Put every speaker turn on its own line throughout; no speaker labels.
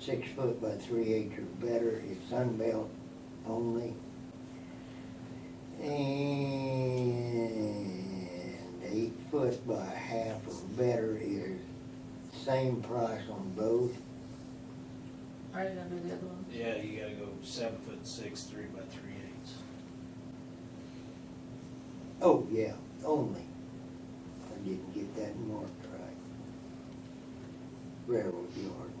six foot by three eight or better, it's sunbelt only. And eight foot by half or better is same price on both.
Are you gonna do the other one?
Yeah, you gotta go seven foot six, three by three eighths.
Oh, yeah, only. I didn't get that marked right. Railroad yard.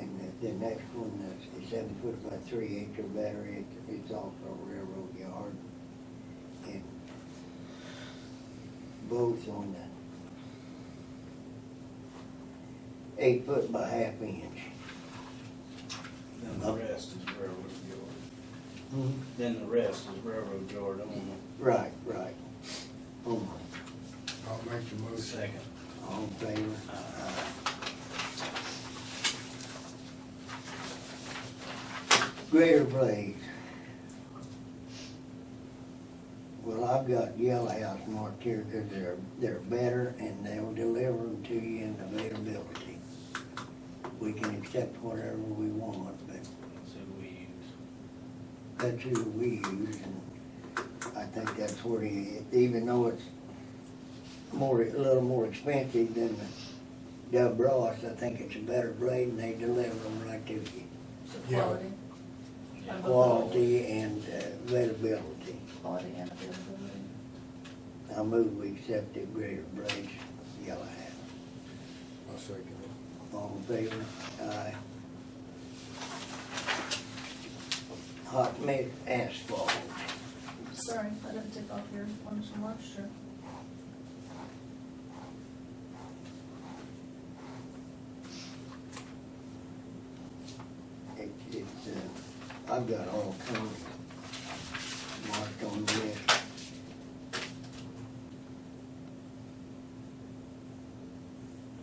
And the, the next one, that's the seven foot by three acre battery, it, it's also railroad yard. And both on the eight foot by half inch.
Then the
Up.
rest is railroad yard. Then the rest is railroad yard on
Right, right. Oh, Only.
I'll make the
the
motion.
second.
All in favor? Greater Plains. Well, I've got Yellow House marked here because they're, they're better and they'll deliver them to you in availability. We can accept whatever we want, but
So we use,
that's who we use, and I think that's where he, even though it's more, a little more expensive than the Dub Ross, I think it's a better blade, and they deliver them right to you.
So
Yeah.
quality,
yeah,
Uh-huh. Quality and uh, availability.
quality and availability.
I move we accept the greater blades, yellow hat.
I'll second it.
All in favor? Aye. Hot mix asphalt.
Sorry, I didn't take off your ones from last year.
It, it's, uh, I've got all kinds marked on this.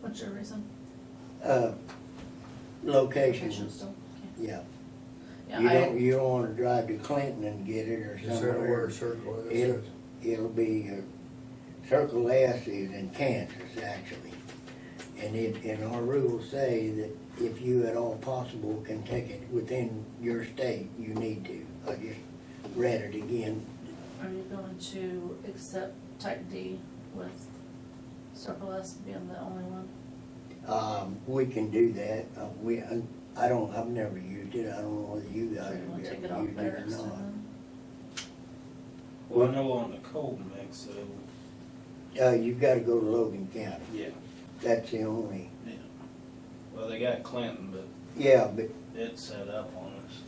What's your reason?
Uh,
Patient
location,
still can't-
yeah.
Yeah,
You don't,
I,
you don't wanna drive to Clinton and get it or
Is that where
somewhere.
a circle is?
It'll, it'll be, uh, Circle S is in Kansas, actually. And it, and our rules say that if you at all possible can take it within your state, you need to. I just read it again.
are you going to accept type D with Circle S being the only one?
Um, we can do that. Uh, we, I, I don't, I've never used it. I don't know whether Uh, you
So
guys
you wanna
have
take it
ever
off
used
there
it or
instead
not.
then?
Well, I know on the cold mix, so,
Uh, you gotta go to Logan County.
yeah,
That's the only,
yeah. Well, they got Clinton, but
yeah, but,
it set up on us.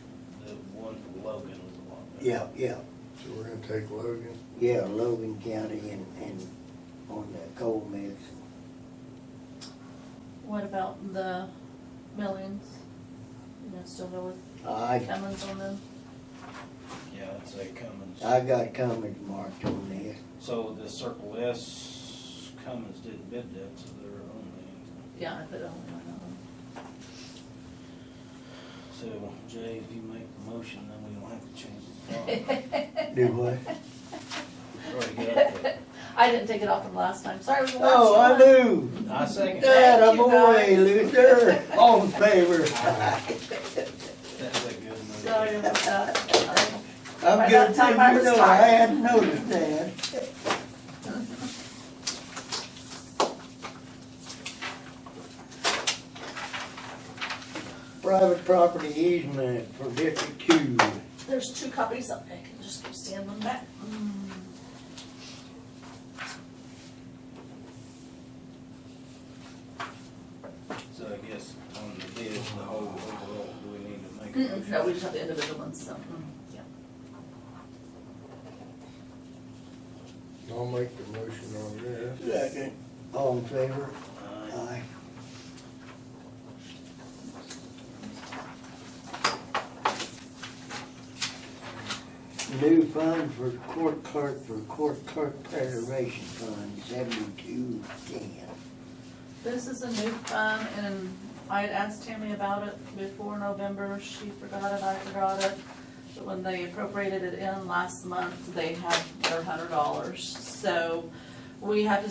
The one for Logan was a lot better.
yeah, yeah,
So we're gonna take Logan,
yeah, Logan County and, and on the coal mix.
What about the millions? You gonna still go with
I,
Cummins on them?
Yeah, I'd say Cummins.
I got comments marked on this.
So the Circle S, Cummins didn't bid that, so they're only,
Yeah, I put only one on them.
so Jay, if you make the motion, then we don't have to change the law.
Do what?
Already got it.
I didn't take it off from last time, sorry, it was the last
Oh, I
one.
do.
I second it.
That a
Thank you,
boy,
guys.
Luther. All in favor?
That's a good move.
Sorry about that.
I'm
By
good,
that
thing
time I
you
was
know, I
tired.
hadn't noticed that. Private property easement for District Two.
There's two copies up there, I can just go stand them back. Mm.
So I guess on the bid, the whole overall, do we need to make a motion?
No, we just have the individual ones, so, mm, yeah.
I'll make the motion on this.
Second. All in favor?
Uh,
Aye. New fund for court clerk, for court clerk preservation fund, seventy-two ten.
This is a new fund, and I had asked Tammy about it before November, she forgot it, I forgot it. But when they appropriated it in last month, they had their hundred dollars, so we have to